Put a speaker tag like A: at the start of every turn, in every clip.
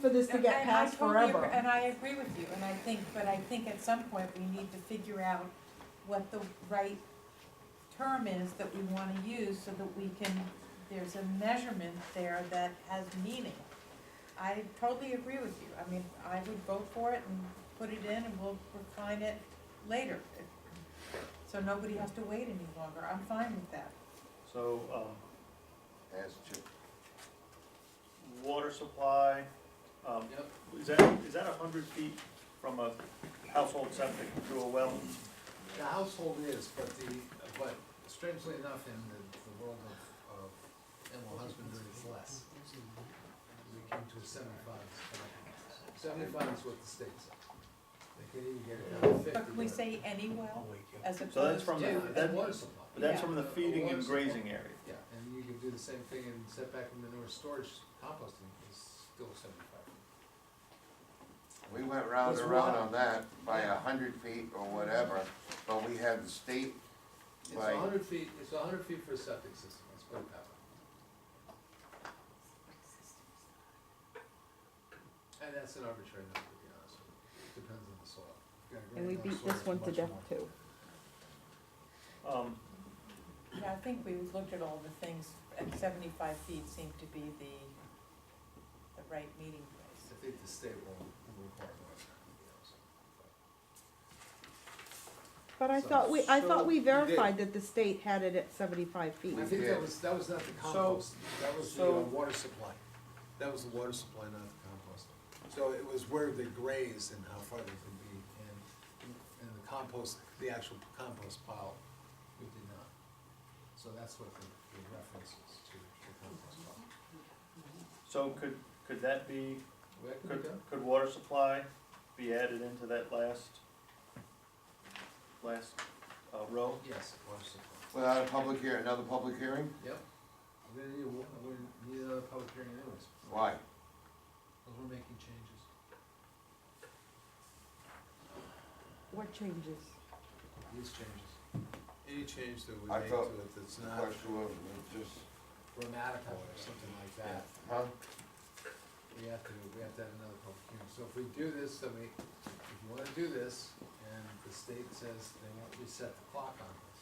A: for this to get
B: And I
A: passed
B: totally agree-
A: forever.
B: And I agree with you, and I think, but I think at some point, we need to figure out what the right term is that we wanna use, so that we can, there's a measurement there that has meaning. I totally agree with you, I mean, I would vote for it and put it in, and we'll refine it later. So nobody has to wait any longer, I'm fine with that.
C: So, um,
D: as to,
C: water supply, um,
E: Yep.
C: is that, is that a hundred feet from a household septic to a well?
E: The household is, but the, but strangely enough, in the, the world of, of animal husbandry, it's less. We came to a seventy-five, seventy-five is what the state says. They can't even get it down to fifty.
B: But can we
E: but-
B: say any well, as opposed to?
C: So that's from
E: Yeah,
C: the,
E: that
C: that,
E: water supply.
C: but that's
B: Yeah.
C: from the
E: A
C: feeding
E: water
C: and
E: supply.
C: grazing area.
E: Yeah, and you can do the same thing in setback and manure storage, composting is still seventy-five.
D: we went round
E: It's
D: and round
E: wide.
D: on that by a hundred feet or whatever, but we had the state,
E: It's
D: Right.
E: a hundred feet, it's a hundred feet for a septic system, let's put it that way. And that's an arbitrary number, to be honest with you, it depends on the soil. If you've got a
F: And we
E: granular
F: beat
E: soil,
F: this
E: it's
F: one to
E: much
F: death
E: more.
F: too.
C: Um,
B: Yeah, I think we looked at all the things, and seventy-five feet seemed to be the, the right meeting place.
E: I think the state will will require more than that, to be honest.
F: But I
E: So-
F: thought we, I thought we
E: so you did.
F: verified that the state had it at seventy-five feet.
E: I think that
D: did.
E: was, that was not the compost, that was the uh,
C: so-
E: water supply, that was the water supply, not the compost. So it was where they graze and how far they could be, and, and the compost, the actual compost pile, we did not. So that's what the, the reference is to the compost pile.
C: so could, could that be,
E: Well, That could
C: could,
E: be done.
C: could water supply be added into that last, last, uh, row?
E: Yes, water supply,
D: without a public hearing, another public hearing?
E: yep. We're gonna need, a wa- we're gonna need another public hearing anyways,
D: Why?
E: because we're making changes.
F: What changes?
E: These changes. Any change that we
D: I
E: make to
D: thought
E: it that's
D: The
E: not
D: question was, was just,
E: grammatical or something like that,
D: huh?
E: we have to, we have to have another public hearing. So if we do this, then we, if you wanna do this, and the state says they won't reset the clock on this,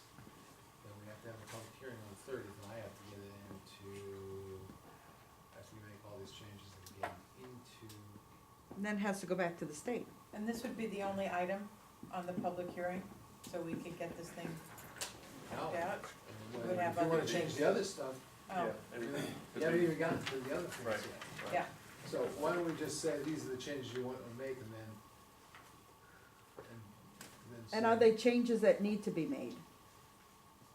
E: then we have to have a public hearing on the thirtieth, and I have to get it into, after we make all these changes, and get it into,
F: And Then has to go back to the state.
B: And this would be the only item on the public hearing, so we could get this thing
E: now. Oh,
B: worked out.
E: And
B: We would
E: when-
B: have
E: If you
B: other
E: wanna change
B: things.
E: the other stuff,
B: Oh,
C: Yeah, maybe.
E: you haven't even gotten to the other things
C: Right.
E: yet.
B: yeah,
E: So why don't we just say, these are the changes you want to make, and then, and then.
F: And
E: say-
F: are they changes that need to be made?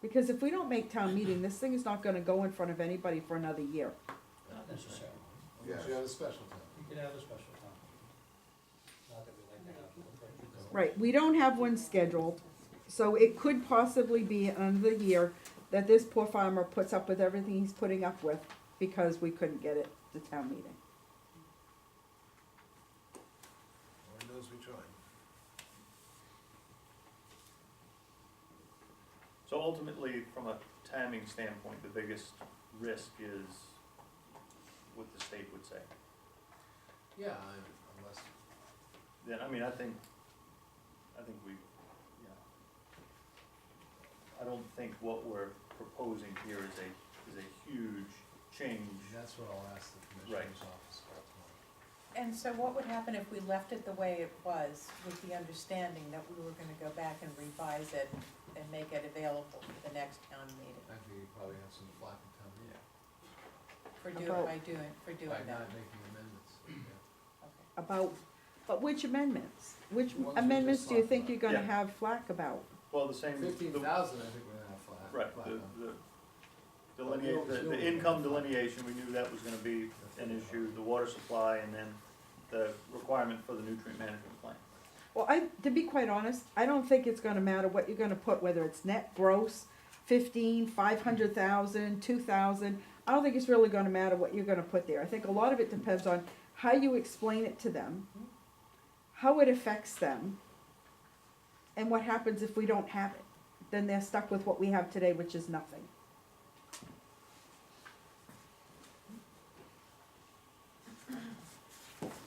F: Because if we don't make town meeting, this thing is not gonna go in front of anybody for another year.
G: Not necessarily.
E: Unless you have a special town.
G: You can have a special town meeting. Not that we like to have. them, but-
F: Right, we don't have one scheduled, so it could possibly be another year that this poor farmer puts up with everything he's putting up with because we couldn't get it to town meeting.
E: Lord knows we tried.
C: So ultimately, from a timing standpoint, the biggest risk is what the state would say.
E: Yeah, I- unless,
C: Then, I mean, I think, I think we, yeah. I don't think what we're proposing here is a, is a huge change.
E: that's what I'll ask the commissioner's office about tomorrow.
B: and so what would happen if we left it the way it was, with the understanding that we were gonna go back and revise it and make it available for the next town meeting,
E: I think you probably have some flack in town meeting
B: for
F: How
B: doing,
F: about-
B: by doing, for doing
E: by
B: that,
E: not making amendments. yeah.
B: okay.
F: About, but which amendments? Which
E: The ones we
F: amendments
E: just
F: do you
E: talked
F: think
E: about.
F: you're gonna
C: Yeah.
F: have flack about?
C: Well, the same,
E: Fifteen
C: the-
E: thousand, I think we're gonna have flack.
C: right,
E: flack
C: the,
E: on.
C: the delinea- the, the income delineation, we knew that was gonna be an issue, the water supply, and then the requirement for the nutrient management plan.
F: Well, I, to be quite honest, I don't think it's gonna matter what you're gonna put, whether it's net gross, fifteen, five hundred thousand, two thousand. I don't think it's really gonna matter what you're gonna put there. I think a lot of it depends on how you explain it to them, how it affects them, and what happens if we don't have it. Then they're stuck with what we have today, which is nothing.